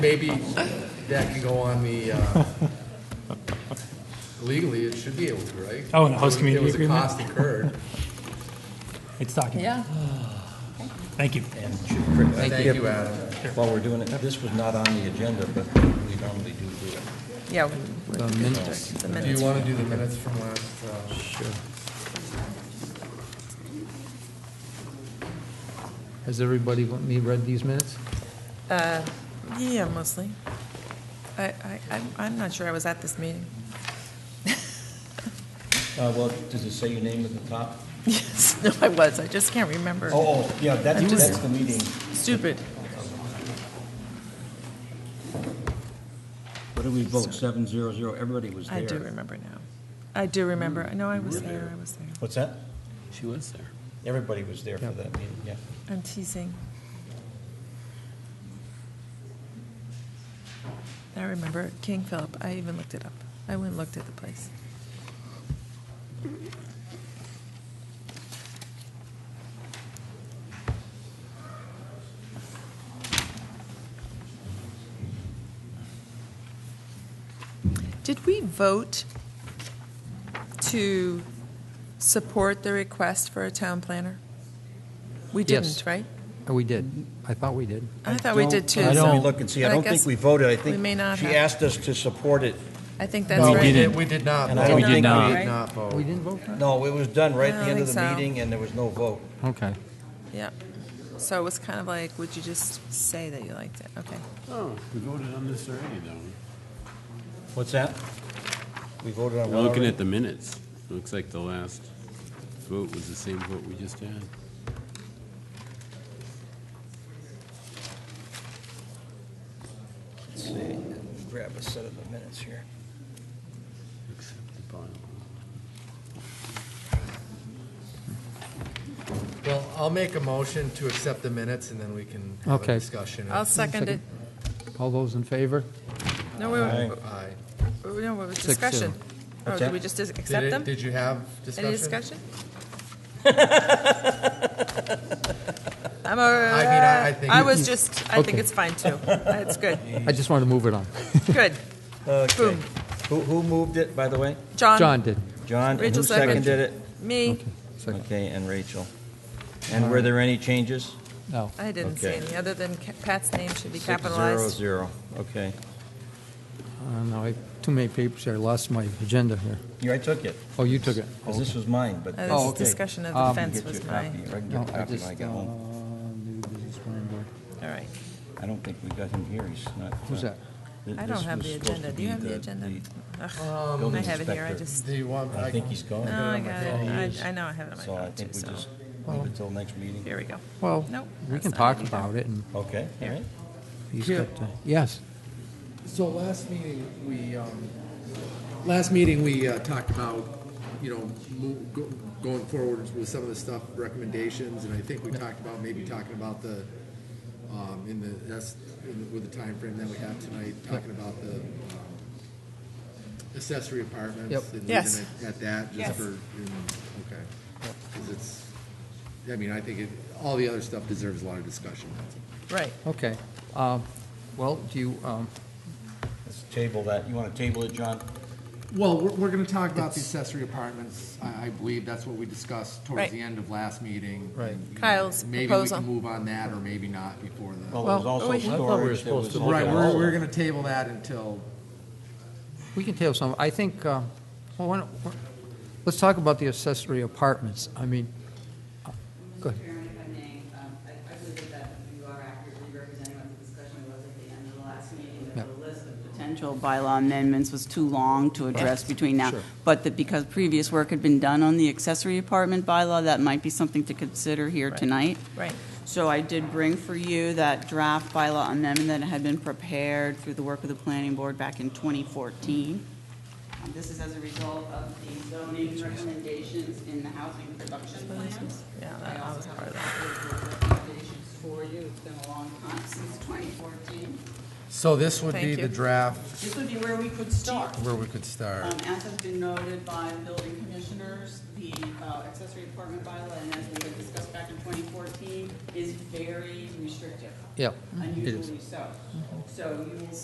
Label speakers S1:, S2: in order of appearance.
S1: Maybe that can go on the, uh, legally, it should be able to, right?
S2: Oh, in the
S1: It was-
S2: host community agreement?
S1: It was a cost incurred.
S2: It's documented.
S3: Yeah,
S2: Thank you.
S4: And should- Chris, I
S1: Thank
S4: think
S1: you, Adam.
S4: if- While we're doing it, this was not on the agenda, but we normally do do it.
S3: yeah. The minutes. The
S1: Do you
S3: minutes.
S1: want to do the minutes from last? uh, Sure.
S5: Has everybody want me read these minutes?
S3: Uh, Yeah, mostly. I, I, I'm- I'm not sure I was at this meeting.
S4: Uh, Well, does it say your name at the top?
S3: Yes, no, I was, I just can't remember.
S4: Oh, oh, yeah, that's,
S3: I'm just-
S4: that's the meeting.
S3: Stupid.
S4: What did we vote, seven zero zero? Everybody was there.
S3: I do remember now. I do remember, no, I was there, I was there.
S4: What's that?
S6: She was there.
S4: Everybody was there for that meeting, yeah.
S3: I'm teasing. I remember King Philip, I even looked it up. I went and looked at the place. Did we vote to support the request for a town planner? We
S5: Yes.
S3: didn't, right?
S5: Oh, we did. I thought we did.
S3: I thought Oh, we did
S4: don't-
S3: too.
S4: Let
S3: so-
S4: me look and see, I
S3: but
S4: don't think
S3: guess-
S4: we voted, I
S3: we
S4: think
S3: may not
S4: she
S3: have.
S4: asked us to support it.
S3: I think that's
S1: No,
S3: right.
S1: we did, we did not.
S4: And
S1: vote.
S4: I don't
S3: We did
S4: think
S3: not.
S4: we-
S3: Right.
S1: Not vote.
S5: We didn't vote for it?
S4: No, it was done right at
S3: I
S4: the end
S3: don't
S4: of
S3: think
S4: the
S3: so.
S4: meeting, and there was no vote.
S5: Okay.
S3: Yeah. So it was kind of like, would you just say that you liked it? Okay.
S6: Oh, we voted on this already, though.
S4: What's that? We voted on
S6: We're
S4: one
S6: looking
S4: already?
S6: at the minutes. Looks like the last vote was the same vote we just had.
S4: Let's see, grab a set of the minutes here.
S6: Accept the bylaw.
S1: Well, I'll make a motion to accept the minutes and then we can have a
S5: Okay.
S1: discussion.
S3: I'll second it.
S5: All those in favor?
S3: No, we
S4: Aye.
S3: were,
S1: Aye.
S3: we- no, it was
S5: Six,
S3: discussion. Oh,
S4: What's
S3: did
S4: that?
S3: we just dis-
S1: Did
S3: accept
S1: it,
S3: them?
S1: did you have discussion?
S3: Any discussion? I'm a,
S1: mean, I- I
S3: I
S1: think-
S3: I was just, I think
S5: Okay.
S3: it's fine too. It's good,
S5: I just want to move it on.
S3: good.
S4: Okay.
S3: Boom.
S4: Who, who moved it, by the way?
S5: John did.
S4: John, and who
S3: Rachel seconded.
S4: seconded it?
S3: Me,
S5: Second.
S4: Okay, and Rachel. And were there any changes?
S5: No.
S3: I didn't see
S4: Okay.
S3: any, other than Ca- Pat's name should be
S4: Six,
S3: capitalized.
S4: zero, zero, okay.
S5: Uh, No, I have too many papers here. I lost my agenda here.
S4: Yeah, I took it,
S5: Oh, you took it.
S4: 'cause this was mine, but.
S3: Uh,
S5: Oh,
S3: This
S5: okay.
S3: discussion of
S5: Um,
S3: the
S4: You
S3: fence
S4: can get
S3: was
S4: your
S3: mine.
S4: copy, or I can get a
S5: No, I
S4: copy when I
S5: just,
S4: get
S5: uh,
S4: home.
S5: new business planning board.
S3: All right.
S4: I don't think we got him here, he's not.
S5: uh, Who's
S4: uh,
S5: that?
S4: th-
S3: I
S4: this
S3: don't have
S4: was
S3: the
S4: supposed to
S3: agenda. Do
S4: be
S3: you have the agenda? Ugh,
S4: building
S3: I have it here, I
S4: inspector.
S3: just,
S1: Do you want?
S4: I think he's gone.
S3: no, I got it. I, I know I have it on my
S4: So I
S3: phone too,
S4: think we
S3: so,
S4: just leave it till next meeting.
S3: here we go.
S5: Well,
S3: Nope,
S5: we
S3: that's
S5: can
S3: not
S5: talk
S3: it either.
S5: about it and
S4: Okay, all right.
S5: he's
S1: Here.
S5: got, to- yes.
S1: So last meeting, we, um, last meeting, we uh, talked about, you know, mo- go- going forward with some of the stuff, recommendations, and I think we talked about maybe talking about the, um, in the, that's, in the- with the time frame that we have tonight, talking about the um, accessory apartments.
S5: Yep.
S1: and leaving
S3: Yes.
S1: it At that, just
S3: Yes.
S1: for, you know, okay. Because it's, I mean, I think it, all the other stuff deserves a lot of discussion.
S3: Right,
S5: Okay. Uh, Well, do you, um,
S4: Let's table that. You want to table it, John?
S1: Well, we're, we're gonna talk about the accessory apartments, I, I believe that's what we discussed towards
S3: Right.
S1: the end of last meeting.
S5: Right.
S1: And, you know,
S3: Kyle's
S1: Maybe we
S3: proposal.
S1: can move on that, or maybe not before the.
S4: Well, there was
S5: Well,
S4: also
S3: we- oh, I thought we
S5: were
S4: storage. there
S5: supposed
S4: was
S5: to
S4: also-
S1: Right, we're, we're gonna table that until,
S5: we can table some, I think, uh, well, why don't- why- let's talk about the accessory apartments. I mean, uh, go ahead.
S7: Chairman, if I may, um, I I believe that you are accurately representing what the discussion was at the end of the last meeting, that the list of potential bylaw amendments was too long to address between now. But that because previous work had been done on the accessory apartment bylaw, that might be something to consider here tonight.
S3: right.
S7: So I did bring for you that draft bylaw amendment that had been prepared through the work of the planning board back in 2014. Um, This is as a result of the zoning recommendations in the housing production plans.
S3: Yeah, that- that was part of
S7: I also have a copy of the recommendations for you. It's been a long time since 2014.
S1: So this would be
S3: Thank
S1: the
S3: you.
S1: draft
S7: This would be where we could start.
S1: where we could start.
S7: Um, As has been noted by the building commissioners, the uh, accessory apartment bylaw, and as we had discussed back in 2014, is very restrictive,
S5: Yeah.
S7: unusually Mm-hmm. so. So you will